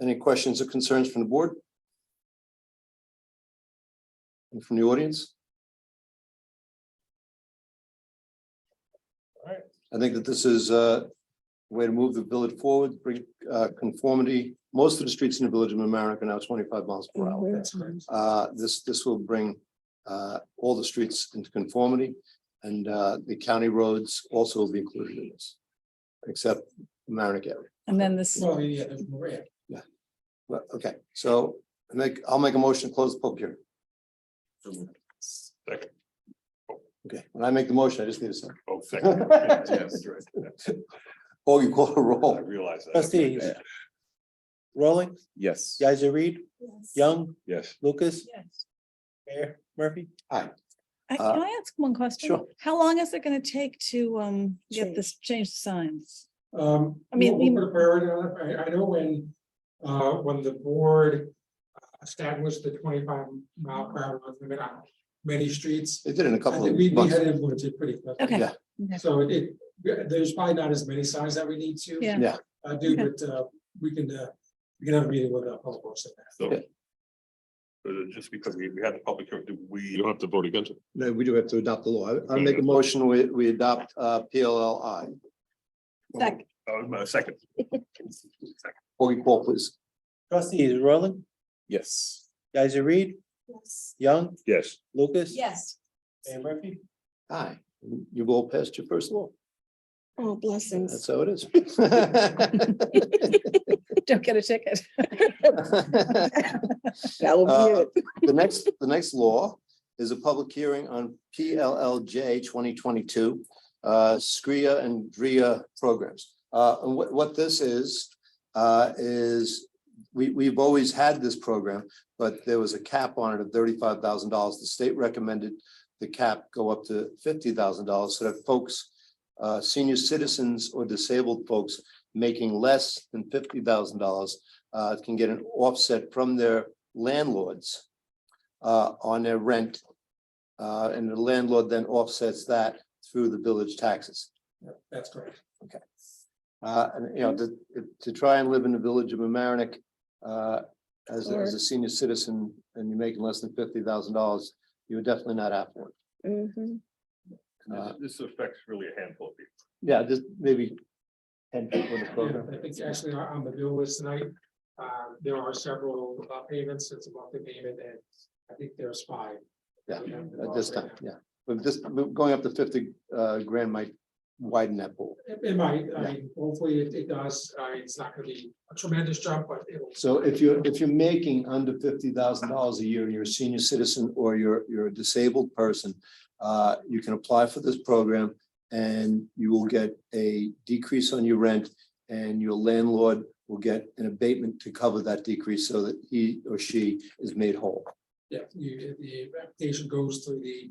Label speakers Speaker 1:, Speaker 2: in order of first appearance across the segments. Speaker 1: Any questions or concerns from the board? And from the audience?
Speaker 2: Alright.
Speaker 1: I think that this is a way to move the village forward, bring uh, conformity. Most of the streets in the village of America now twenty-five miles per hour.
Speaker 3: Mm-hmm.
Speaker 1: Uh, This, this will bring uh, all the streets into conformity and uh, the county roads also will be included in this, except Mamaroneck area.
Speaker 3: And then this,
Speaker 2: Well, yeah, there's Maria.
Speaker 1: Well, okay, so I make, I'll make a motion to close the public hearing.
Speaker 4: Second.
Speaker 1: Okay, when I make the motion, I just need a second.
Speaker 4: Oh, second. Yes, right.
Speaker 1: Oh, you call a
Speaker 4: I
Speaker 1: roll.
Speaker 4: realize that.
Speaker 5: Trustees. Rolling,
Speaker 4: Yes.
Speaker 5: Geiser Reed, Young,
Speaker 4: Yes.
Speaker 5: Lucas,
Speaker 3: Yes.
Speaker 5: Mayor Murphy.
Speaker 3: I-
Speaker 1: Uh,
Speaker 3: can I ask one question?
Speaker 1: sure.
Speaker 3: How long is it gonna take to um get this change signs?
Speaker 2: Um,
Speaker 3: I mean,
Speaker 2: we'll-
Speaker 3: we-
Speaker 2: we'll put a priority on it. I, I know when, uh, when the board uh, established the twenty-five mile per hour limit on many streets,
Speaker 1: They did it in a
Speaker 2: I
Speaker 1: couple
Speaker 2: think we,
Speaker 1: of
Speaker 2: we
Speaker 1: months.
Speaker 2: had influence it pretty quickly.
Speaker 3: Okay.
Speaker 1: Yeah.
Speaker 3: Okay.
Speaker 2: So it, it- there's probably not as many signs that we need to.
Speaker 3: Yeah.
Speaker 1: Yeah.
Speaker 2: Uh, do, but, uh, we can, uh, we can have a meeting with the public works. on that.
Speaker 4: So.
Speaker 1: Yeah.
Speaker 4: uh, Just because we, we had the public hearing, do we. You don't have to vote against it.
Speaker 1: No, we do have to adopt the law. I- I make a motion, we, we adopt uh, PLLI.
Speaker 3: Second.
Speaker 4: Uh, my second.
Speaker 1: Oh, you call, please.
Speaker 5: Trustees, Rolling,
Speaker 4: Yes.
Speaker 5: Geiser Reed, Young,
Speaker 4: Yes.
Speaker 5: Lucas.
Speaker 3: Yes.
Speaker 5: Mayor Murphy.
Speaker 1: Aye, you've all passed your first law.
Speaker 6: Oh, blessings.
Speaker 1: That's how it is.
Speaker 3: Don't get a ticket.
Speaker 6: That will
Speaker 1: Uh,
Speaker 6: be it.
Speaker 1: The next, the next law is a public hearing on PLLJ twenty twenty-two, uh, SCRIA and DRIA programs. Uh, and what, what this is, uh, is we, we've always had this program, but there was a cap on it of thirty-five thousand dollars. The state recommended the cap go up to fifty thousand dollars so that folks, uh, senior citizens or disabled folks making less than fifty thousand dollars uh, can get an offset from their landlords uh, on their rent. Uh, and the landlord then offsets that through the village taxes.
Speaker 2: That's correct.
Speaker 1: Uh, and, you know, to, to try and live in the village of Amerenik, uh, as, a- as a senior citizen and you're making less than fifty thousand dollars, you're definitely not affluent.
Speaker 6: Mhm.
Speaker 1: Uh,
Speaker 4: This affects really a handful of people.
Speaker 1: Yeah, just maybe ten people in the
Speaker 2: Yeah,
Speaker 1: program.
Speaker 2: I think actually on on the bill list tonight, uh, there are several uh, payments, it's a monthly payment, and I think there's five.
Speaker 1: Yeah,
Speaker 2: We have
Speaker 1: At this
Speaker 2: right
Speaker 1: time,
Speaker 2: now.
Speaker 1: yeah. But this, but going up to fifty uh, grand might widen that pool.
Speaker 2: It it might,
Speaker 1: Yeah.
Speaker 2: I mean, hopefully it, it does, I mean, it's not gonna be a tremendous jump, but it'll.
Speaker 1: So if you're, if you're making under fifty thousand dollars a year, and you're a senior citizen or you're, you're a disabled person, uh, you can apply for this program and you will get a decrease on your rent and your landlord will get an abatement to cover that decrease so that he or she is made whole.
Speaker 2: Yeah, you, the application goes through the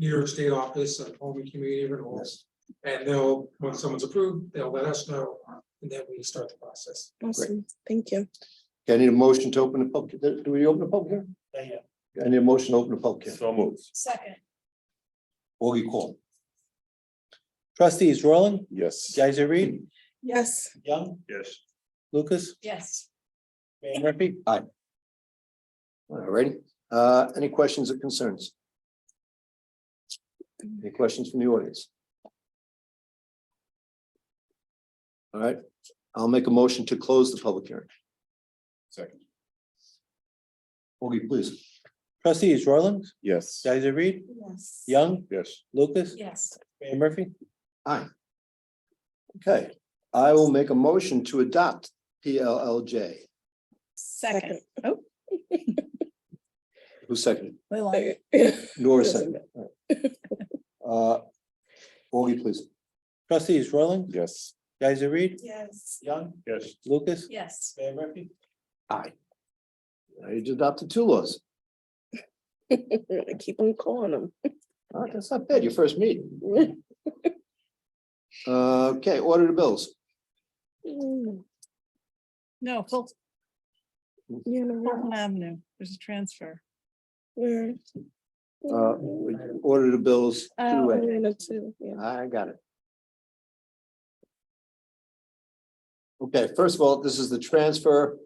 Speaker 2: New York State Office of Home and Community Renewals. And they'll, when someone's approved, they'll let us know, and then we start the process.
Speaker 6: Awesome. Thank you.
Speaker 1: Okay, I need a motion to open the public, do we open the public hearing? I need a motion to open the public hearing.
Speaker 4: So moves.
Speaker 3: Second.
Speaker 1: Augie call.
Speaker 5: Trustees, Rolling,
Speaker 4: Yes.
Speaker 5: Geiser Reed,
Speaker 6: Yes,
Speaker 5: Young,
Speaker 4: Yes.
Speaker 5: Lucas,
Speaker 3: Yes.
Speaker 5: Mayor Murphy.
Speaker 1: All righty, uh, any questions or concerns? Any questions from the audience? All right, I'll make a motion to close the public hearing.
Speaker 4: Second.
Speaker 1: Augie, please.
Speaker 5: Trustees, Rolling,
Speaker 4: Yes.
Speaker 5: Geiser Reed,
Speaker 6: yes.
Speaker 5: Young,
Speaker 4: Yes.
Speaker 5: Lucas,
Speaker 3: Yes.
Speaker 5: Mayor Murphy.
Speaker 1: Okay, I will make a motion to adopt PLLJ.
Speaker 3: Second.
Speaker 6: Second.
Speaker 3: Oh,
Speaker 1: Who seconded?
Speaker 3: we like
Speaker 1: Nora seconded. Uh, Augie, please.
Speaker 5: Trustees, Rolling,
Speaker 4: Yes.
Speaker 5: Geiser Reed,
Speaker 6: Yes.
Speaker 5: Young,
Speaker 4: Yes.
Speaker 5: Lucas,
Speaker 3: Yes.
Speaker 5: Mayor Murphy.
Speaker 1: Aye. I adopted two laws.
Speaker 6: I Keep on calling them.
Speaker 1: All right, Ah, that's not bad, your first meeting. Uh, Okay, order the bills.
Speaker 6: Mm,
Speaker 3: No, Fulton
Speaker 6: You know,
Speaker 3: Fulton Avenue, there's a transfer.
Speaker 6: we're.
Speaker 1: Uh, we Order the bills. two
Speaker 3: Oh.
Speaker 1: A.
Speaker 6: We're in it too, yeah.
Speaker 1: I got it. Okay, first of all, this is the transfer uh,